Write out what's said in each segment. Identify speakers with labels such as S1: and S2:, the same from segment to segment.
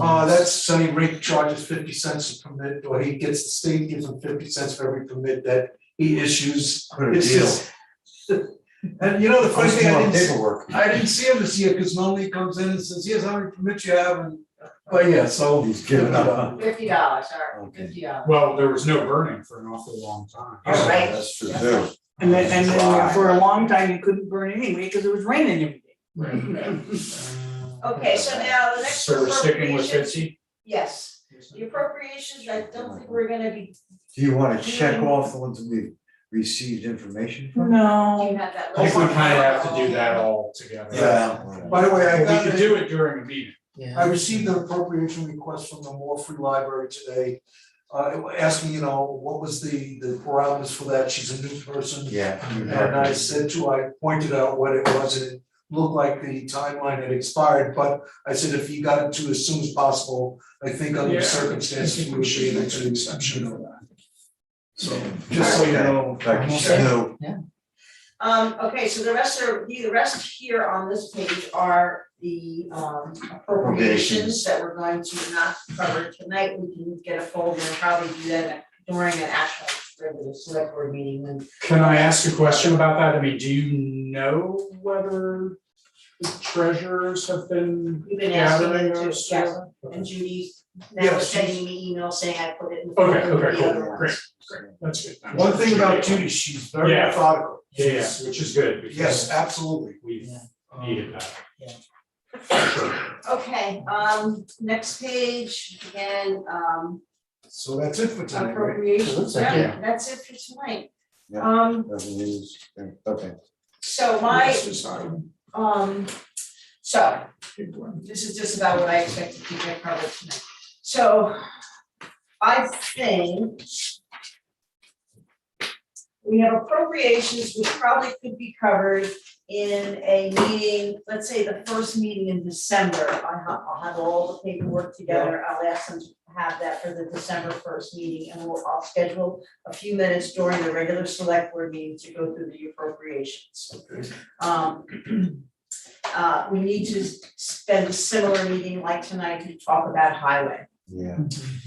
S1: Uh, that's Sunny Rink charges fifty cents a permit, or he gets, the state gives him fifty cents for every permit that he issues.
S2: What a
S1: It's
S2: deal.
S1: just- And you know, the funny
S2: First
S1: thing, I didn't, s-
S2: paperwork.
S1: I didn't see him this year, cause normally he comes in and says, here's how many permits you have, and, uh, but yeah, so.
S2: He's giving up.
S3: Fifty dollars, all right,
S2: Okay.
S3: fifty dollars.
S4: Well, there was no burning for an awful long time.
S3: All right.
S2: That's true too.
S5: And then, and then for a long time, you couldn't burn anyway, because it was raining every day.
S3: Okay, so now the next
S4: So we're sticking with
S3: appropriations,
S4: fifty?
S3: yes, the appropriations, I don't think we're gonna be,
S2: Do you wanna check off the ones we've received information from?
S3: do you
S5: No,
S3: have that
S4: I think
S3: list?
S4: we kind of have to do that all together.
S1: By the way, I
S4: We
S1: got
S4: could
S1: it.
S4: do it during a meeting.
S1: I received an appropriation request from the Moore Free Library today. Uh, asking, you know, what was the, the parameters for that, she's a new person.
S2: Mm-hmm. Yeah. you
S1: And I
S2: have to.
S1: said to, I pointed out what it was, and it looked like the timeline had expired, but I said if you got it to as soon as possible, I think under
S4: Yeah.
S1: the circumstances, we would be able to exception of that. So, just so you
S2: Okay.
S1: know.
S2: Like, you said, no,
S3: Um, okay, so the rest are, the the rest here on this page are the um
S2: Appropriations.
S3: appropriations that we're going to not cover tonight. We can get a folder and probably do that during an actual regular select board meeting when
S4: Can I ask a question about that? I mean, do you know whether the treasurers have been
S3: You've been asking
S4: gathering
S3: them to,
S4: those?
S3: yes,
S4: together?
S3: and Judy
S1: Yeah,
S3: now
S1: but
S3: is
S1: she's-
S3: sending me email saying I put it in. the
S4: Okay,
S3: folder with
S4: okay,
S3: the other
S4: cool,
S3: ones.
S4: great, great, that's good. I'm
S1: One thing
S4: sure
S1: about
S4: they-
S1: Judy, she's very
S4: Yeah.
S1: methodical.
S4: Yeah, yeah, which is good
S1: Yes,
S4: because
S1: absolutely.
S4: we've
S1: Um,
S4: needed that.
S5: Yeah.
S4: Sure.
S3: Okay, um, next page, again, um,
S1: So that's it for tonight, right?
S3: appropriations,
S5: like
S3: yeah, that's it for tonight.
S2: Yeah.
S3: Um,
S2: revenues, okay.
S3: so my,
S1: Let's just, um,
S3: um, so, this is just about what I expect to keep it covered tonight. So, I think we have appropriations which probably could be covered in a meeting, let's say the first meeting in December. I have, I'll have all the paperwork together, I'll ask them to have that for the December first meeting, and we'll, I'll schedule a few minutes during the regular select board meeting to go through the appropriations. Um, uh, we need to spend a similar meeting like tonight to talk about highway.
S2: Yeah.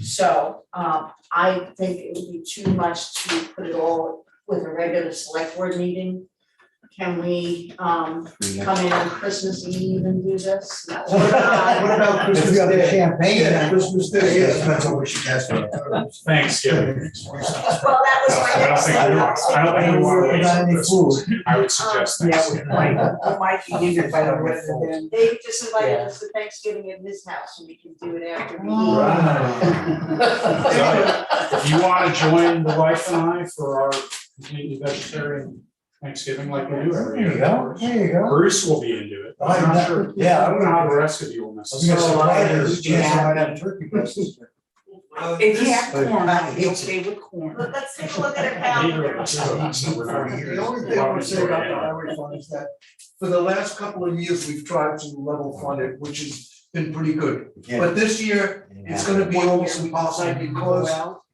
S3: So, um, I think it would be too much to put it all with a regular select board meeting. Can we, um, come in on Christmas Eve and do this? No.
S1: What about, what about Christmas Day?
S2: champagne.
S1: Yeah, Christmas Day,
S2: Yeah,
S1: yes.
S2: that's what we should ask.
S4: Thanksgiving.
S3: Well, that was
S4: I
S3: my
S4: don't
S3: next
S4: think,
S3: thing.
S4: I don't, I don't think we want to waste Christmas. I would suggest
S5: Um, yeah,
S4: Thanksgiving.
S5: with Mike, Mike, you did it by the way, then.
S3: They just invited us to Thanksgiving at his house and we can do it after we
S2: Oh.
S3: eat.
S4: So, If you want to join the wife and I for our completely vegetarian Thanksgiving like we do every
S2: There
S4: year.
S2: you
S4: of
S2: go,
S4: course.
S2: there you go.
S4: Bruce will be into
S1: Oh,
S4: it. I'm not sure.
S2: Yeah,
S4: I
S2: I'm
S4: don't know
S2: gonna.
S4: how the rest of you will
S2: I'm gonna
S4: necessarily.
S2: surprise
S1: Yeah.
S2: you, Chance, I might have turkey breast.
S1: Uh,
S5: If you
S1: this-
S5: have corn, it's okay with corn.
S3: Let- Let's take a look at our
S4: Neither of
S3: calendar.
S4: us will eat, so we're not gonna
S1: The only thing I would say about the highway fund is that for the last couple of years, we've tried to level fund it, which has been pretty good. But this year, it's gonna be almost impossible because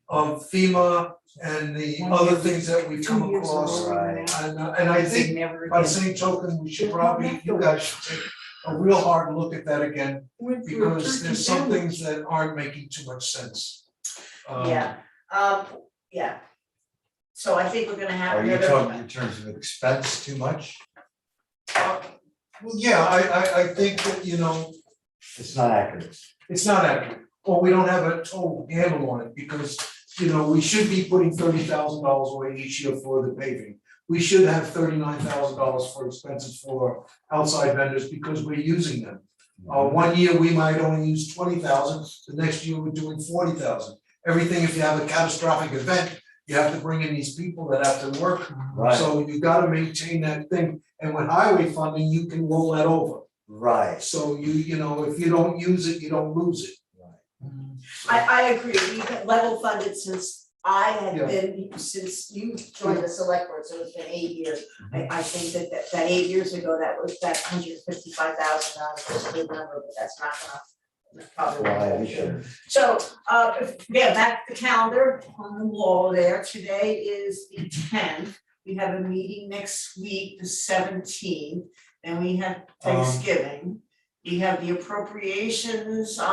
S1: of FEMA and the other things that we've come across. And, uh, and I think by the same token, we should probably, you guys should take a real hard look at that again, because there's some things that aren't making too much sense. Um,
S3: Yeah, um, yeah. So I think we're gonna have
S2: Are you
S3: another.
S2: talking in terms of expense too much?
S1: Well, yeah, I, I, I think that, you know,
S2: It's not accurate.
S1: It's not accurate, or we don't have a total handle on it, because, you know, we should be putting thirty thousand dollars away each year for the paving. We should have thirty-nine thousand dollars for expenses for outside vendors, because we're using them. Uh, one year, we might only use twenty thousand, the next year, we're doing forty thousand. Everything, if you have a catastrophic event, you have to bring in these people that have to work,
S2: Right,
S1: so you gotta maintain that thing, and with highway funding, you can roll that over.
S2: right.
S1: So you, you know, if you don't use it, you don't lose it.
S3: I, I agree, we've been level funded since I
S1: Yeah.
S3: had been, since you joined the select board, so it's been eight years. I, I think that, that, that eight years ago, that was, that hundred and fifty-five thousand dollars was a good number, but that's not enough. That's Probably. not
S2: Right,
S3: enough.
S2: sure.
S3: So, uh, if- yeah, back to the calendar on the wall there, today is the tenth. We have a meeting next week, the seventeenth, and we have Thanksgiving. We have the appropriations